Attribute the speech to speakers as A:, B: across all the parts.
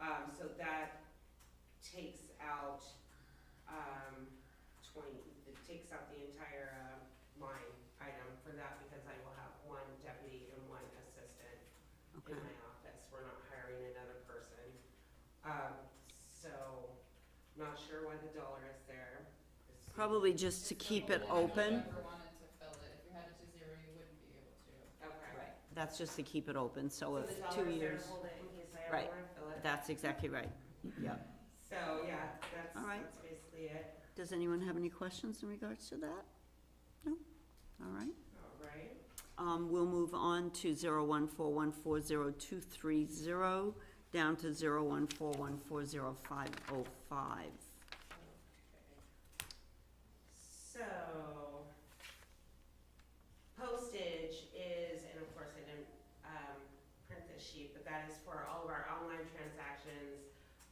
A: Um, so that takes out, um, twenty, it takes out the entire, uh, line item for that because I will have one deputy and one assistant in
B: Okay,
A: my office. We're not hiring another person. Um, so, not sure why the dollar is there. It's-
B: probably just to keep it open,
C: If you ever wanted to fill it, if you had it to zero, you wouldn't be able to.
A: Okay.
B: that's just to keep it open, so
A: So
B: if
A: the dollar
B: two
A: is there to
B: years,
A: hold it in case I
B: Right.
A: ever wanna fill it.
B: that's exactly right, yep.
A: So, yeah, that's,
B: All right.
A: that's basically it.
B: Does anyone have any questions in regards to that? No, all right.
A: All right.
B: Um, we'll move on to zero one four one four zero two three zero, down to zero one four one four zero five oh five.
A: So, postage is, and of course I didn't, um, print this sheet, but that is for all of our online transactions,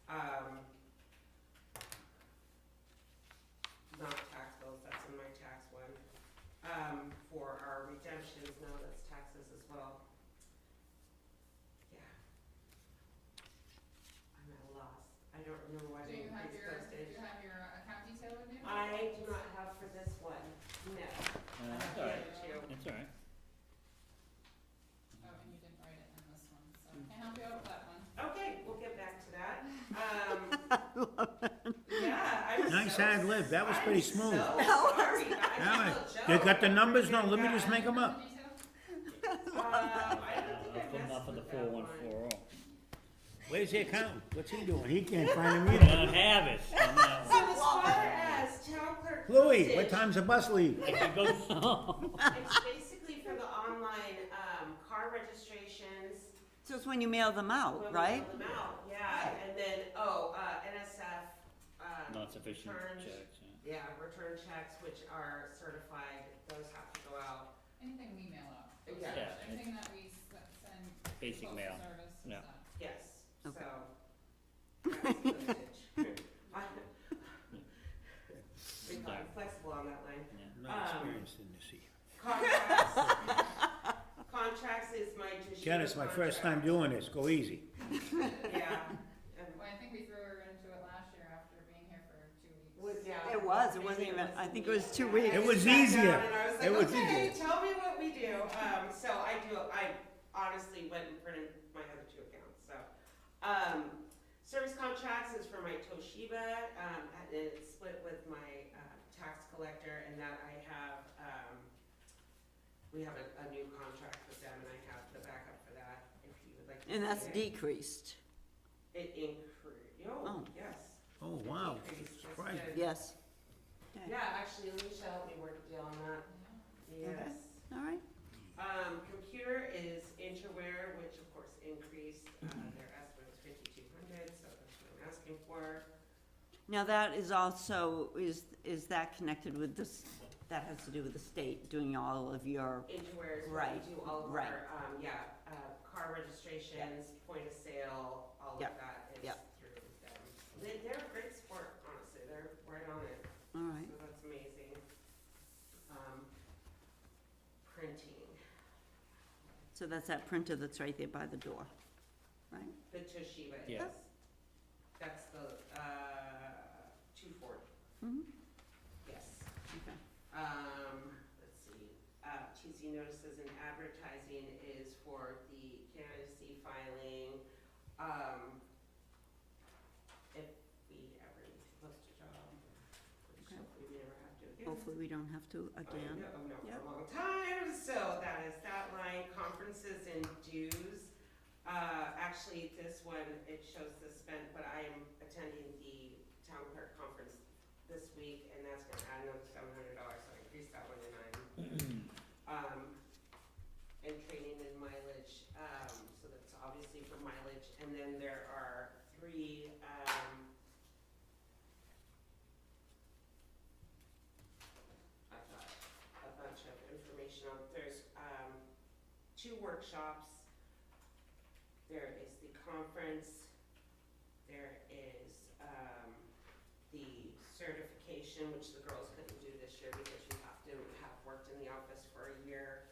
A: um, not tax bills, that's in my tax one, um, for our redemptions, no, that's taxes as well. Yeah. I'm at a loss, I don't remember why I
C: Do you
A: didn't
C: have
A: increase
C: your, do
A: postage.
C: you have your uh, account detail in there?
A: I do not have for this one, no. I
D: Uh,
A: have
D: it's
A: the
D: all
A: other
D: right.
A: two.
D: It's all right.
C: Oh, and you didn't write it in this one, so I can help you out with that one.
A: Okay, we'll get back to that. Um, yeah, I'm so.
D: Nice ad lib. That was pretty smooth.
A: I'm so sorry, I
D: Yeah,
A: feel
D: You got the
A: joked.
D: numbers? No, let me just
A: Yeah.
D: make them up.
C: Account detail?
A: Um, I don't think I
D: Nothing,
A: messed
D: not for the
A: with
D: four
A: that
D: one
A: one.
D: four oh.
E: Where's the accountant? What's he doing? He can't find him either.
D: Don't have it. on that one.
A: So as far as town clerk
E: Louis, what
A: postage,
E: time's the bus leave?
D: If you go-
A: It's basically for the online, um, car registrations,
B: So it's when you mail them out,
A: when we
B: Oh, right?
A: mail them out, yeah, and then, oh, uh, NSF, um,
D: Not sufficient
A: Turns.
D: checks, yeah.
A: Yeah, return checks which are certified, those have to go out.
C: Anything we mail out.
A: Yeah.
D: Yeah.
C: Anything that we s- send.
D: Basic
C: postal
D: mail.
C: service is
D: Yeah.
C: that.
A: Yes, so.
B: Okay.
A: that's postage. We call it flexible on that line.
E: I'm not experienced in this either.
A: Contracts. Contracts is my just.
E: Ken, it's my first time doing this. Go easy.
A: Yeah. um,
C: Well, I think we threw her into it last year after being here for two weeks.
A: Was, yeah.
B: It was, it wasn't even, I think it was two weeks.
A: I
E: It was
A: sat down
E: easier.
A: And I was
E: It
A: like,
E: was
A: okay,
E: easier.
A: tell me what we do. Um, so I do, I honestly went and printed my other two accounts, so. Um, service contracts is for my Toshiba, um, and it's split with my, uh, tax collector and that I have, um, we have a, a new contract with them and I have the backup for that if you would like. to
B: And that's
A: see it.
B: decreased,
A: It increased, oh,
B: Oh.
A: yes.
E: Oh, wow.
A: It increased, that's
E: Surprising.
A: good.
B: yes,
A: Yeah, actually Alicia helped me work a deal on that,
C: Yeah.
A: yes.
B: all right.
A: Um, computer is Interware, which of course increased, uh,
B: Mm-hmm.
A: their estimate was fifty-two hundred, so that's what I'm asking for.
B: Now, that is also, is, is that connected with this, that has to do with the state doing all of your,
A: Interware is where we
B: Right,
A: do all of
B: right.
A: our, um, yeah, uh, car registrations, point of sale, all of
B: Yep,
A: that is
B: yep.
A: through them. They, they're a great sport, honestly, they're right on it,
B: all right,
A: so that's amazing. Um, printing,
B: so that's that printer that's right there by the door, right?
A: the Toshiba is.
D: Yeah.
A: That's the, uh, two forty,
B: Mm-hmm,
A: yes.
B: okay.
A: Um, let's see, uh, TC notices and advertising is for the candidacy filing, um, if we ever need to post a job, which
B: Okay.
A: hopefully we never have to again.
B: Hopefully, we don't have to again.
A: I know, Oh, for
B: Yep.
A: a long time, so that is that line, conferences and dues. Uh, actually, this one, it shows the spend, but I am attending the town clerk conference this week, and that's gonna add another seven hundred dollars, so I increased that one to nine. Um, and training and mileage, um, so that's obviously for mileage, and then there are three, um, I've got a bunch of information on, there's, um, two workshops. There is the conference, there is, um, the certification, which the girls couldn't do this year because you have to have worked in the office for a year.